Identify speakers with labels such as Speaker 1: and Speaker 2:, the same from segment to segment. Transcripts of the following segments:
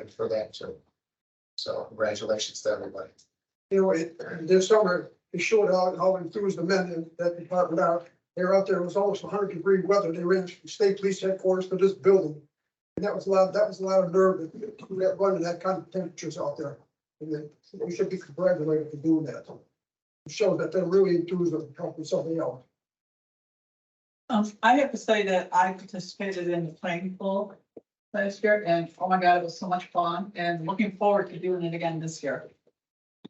Speaker 1: and for that too. So congratulations to everybody.
Speaker 2: You know, it, this summer, it showed how, how enthused the men in that department are. They were out there, it was almost hundred degree weather. They ran from state police headquarters to this building. And that was a lot, that was a lot of nerve that, that running that kind of temperatures out there. And then we should be congratulated for doing that. It shows that they're really enthused of helping somebody out.
Speaker 3: Um, I have to say that I participated in the playing pool last year and oh my God, it was so much fun and looking forward to doing it again this year.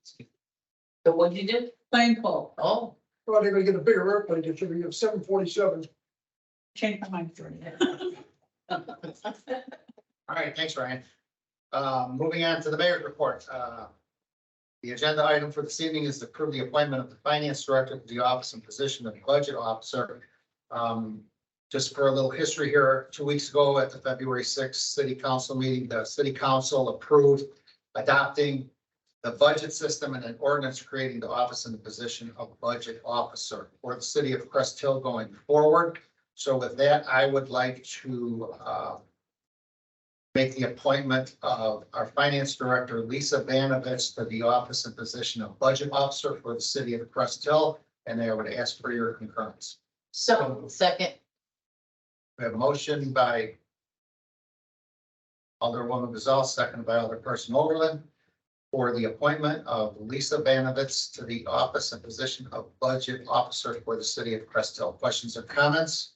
Speaker 4: So what you did?
Speaker 3: Playing pool,
Speaker 4: Oh,
Speaker 2: Well, they're gonna get a bigger airplane. It should be a seven forty-seven.
Speaker 3: changed my mind for it.
Speaker 1: All right, thanks, Ryan. Um, moving on to the mayor's report. Uh, The agenda item for this evening is to approve the appointment of the finance director to the office and position of budget officer. Um, Just for a little history here, two weeks ago at the February sixth city council meeting, the city council approved adopting the budget system and an ordinance creating the office and the position of budget officer for the city of Crest Hill going forward. So with that, I would like to uh, make the appointment of our finance director, Lisa Vanovich, to the office and position of budget officer for the city of Crest Hill. And I would ask for your concurrence.
Speaker 4: so second,
Speaker 1: We have a motion by Alderwoman Gazal, second by Alderperson Overland, for the appointment of Lisa Vanovich to the office and position of budget officer for the city of Crest Hill. Questions or comments?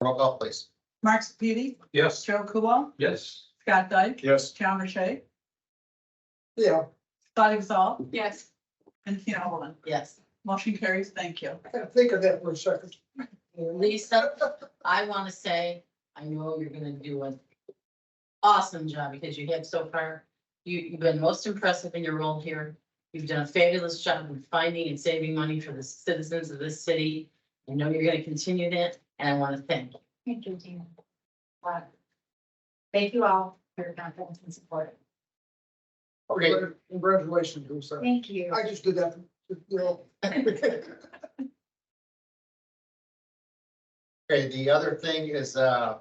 Speaker 1: Roll call, please.
Speaker 3: Mark Sepiti,
Speaker 5: Yes.
Speaker 3: Joe Kubal,
Speaker 5: Yes.
Speaker 3: Scott Dyke,
Speaker 5: Yes.
Speaker 3: John Rashay,
Speaker 2: Yeah,
Speaker 3: Scott Exall,
Speaker 4: yes,
Speaker 3: and Tina Holland.
Speaker 4: yes.
Speaker 3: Motion carries. Thank you.
Speaker 2: I gotta think of that for a second.
Speaker 4: Lisa, I want to say, I know you're gonna do an awesome job because you have so far. You, you've been most impressive in your role here. You've done a fabulous job in finding and saving money for the citizens of this city. I know you're gonna continue that, and I want to thank you.
Speaker 6: Thank you, Tina. Wow. Thank you all for your confidence and support.
Speaker 1: Okay.
Speaker 2: Congratulations, Lisa.
Speaker 6: Thank you.
Speaker 2: I just did that, you know,
Speaker 1: Okay, the other thing is, uh,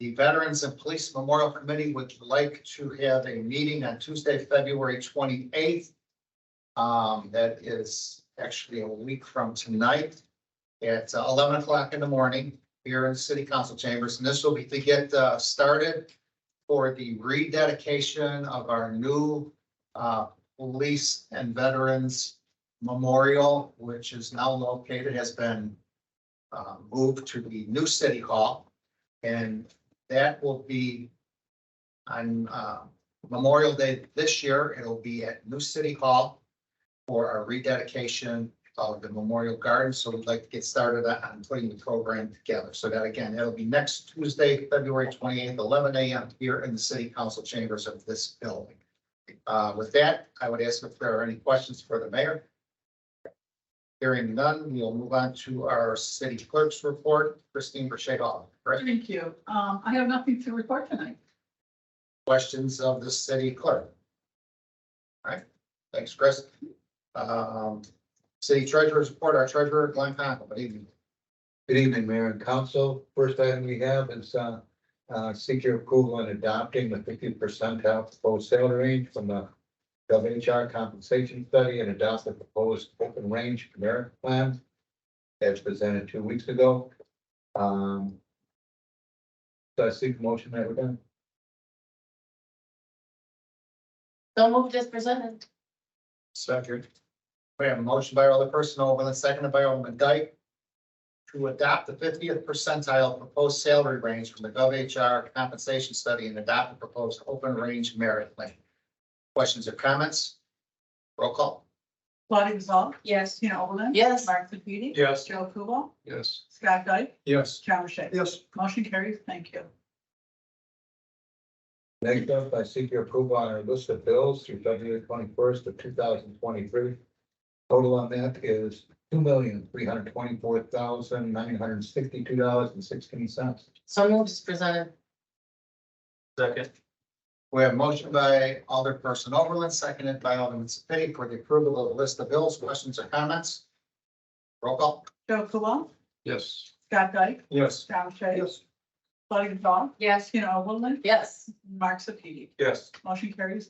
Speaker 1: the Veterans and Police Memorial Committee would like to have a meeting on Tuesday, February twenty-eighth. Um, that is actually a week from tonight. It's eleven o'clock in the morning here in the city council chambers, and this will be to get, uh, started for the rededication of our new, uh, Police and Veterans Memorial, which is now located, has been uh, moved to the new city hall. And that will be on uh, Memorial Day this year. It'll be at New City Hall for our rededication of the Memorial Garden. So we'd like to get started on putting the program together. So that again, it'll be next Tuesday, February twenty-eighth, eleven AM here in the city council chambers of this building. Uh, With that, I would ask if there are any questions for the mayor. Hearing none, we'll move on to our city clerk's report. Christine Burchett Hall. Correct?
Speaker 3: Thank you. Um, I have nothing to report tonight.
Speaker 1: Questions of the city clerk? All right, thanks, Chris. Um, city treasurer's report, our treasurer, Glenn Conklin, good evening.
Speaker 7: Good evening, Mayor and Council. First item we have is uh, uh, seek your approval in adopting the fifty percentile proposed salary range from the WHR compensation study and adopt the proposed open range merit plan as presented two weeks ago. Um, So I seek motion that we're done.
Speaker 4: So moved as presented,
Speaker 1: Second. We have a motion by all the personnel, Overland, seconded by Alderman Dyke. To adopt the fiftieth percentile proposed salary range from the GovHR compensation study and adopt the proposed open range merit plan. Questions or comments? Roll call.
Speaker 3: Scott Exall,
Speaker 6: Yes.
Speaker 3: Tina Holland.
Speaker 4: yes.
Speaker 3: Mark Sepiti.
Speaker 5: Yes.
Speaker 3: Joe Kubal,
Speaker 5: Yes.
Speaker 3: Scott Dyke,
Speaker 5: Yes.
Speaker 3: John Rashay.
Speaker 2: yes,
Speaker 3: Motion carries. Thank you.
Speaker 7: Next up, I seek your approval on our list of bills through February twenty-first of two thousand twenty-three. Total on that is two million, three hundred twenty-four thousand, nine hundred sixty-two dollars and sixteen cents.
Speaker 4: So moved as presented,
Speaker 5: Second.
Speaker 1: We have a motion by Alderperson Overland, seconded by Alderman Sapiti for the approval of the list of bills, questions or comments? Roll call.
Speaker 3: Joe Kubal,
Speaker 5: Yes.
Speaker 3: Scott Dyke,
Speaker 5: Yes.
Speaker 3: John Rashay.
Speaker 2: yes.
Speaker 3: Claudia Gazal,
Speaker 6: Yes.
Speaker 3: Tina Oberlin,
Speaker 4: Yes.
Speaker 3: Mark Sepidi.
Speaker 5: Yes.
Speaker 3: Motion carries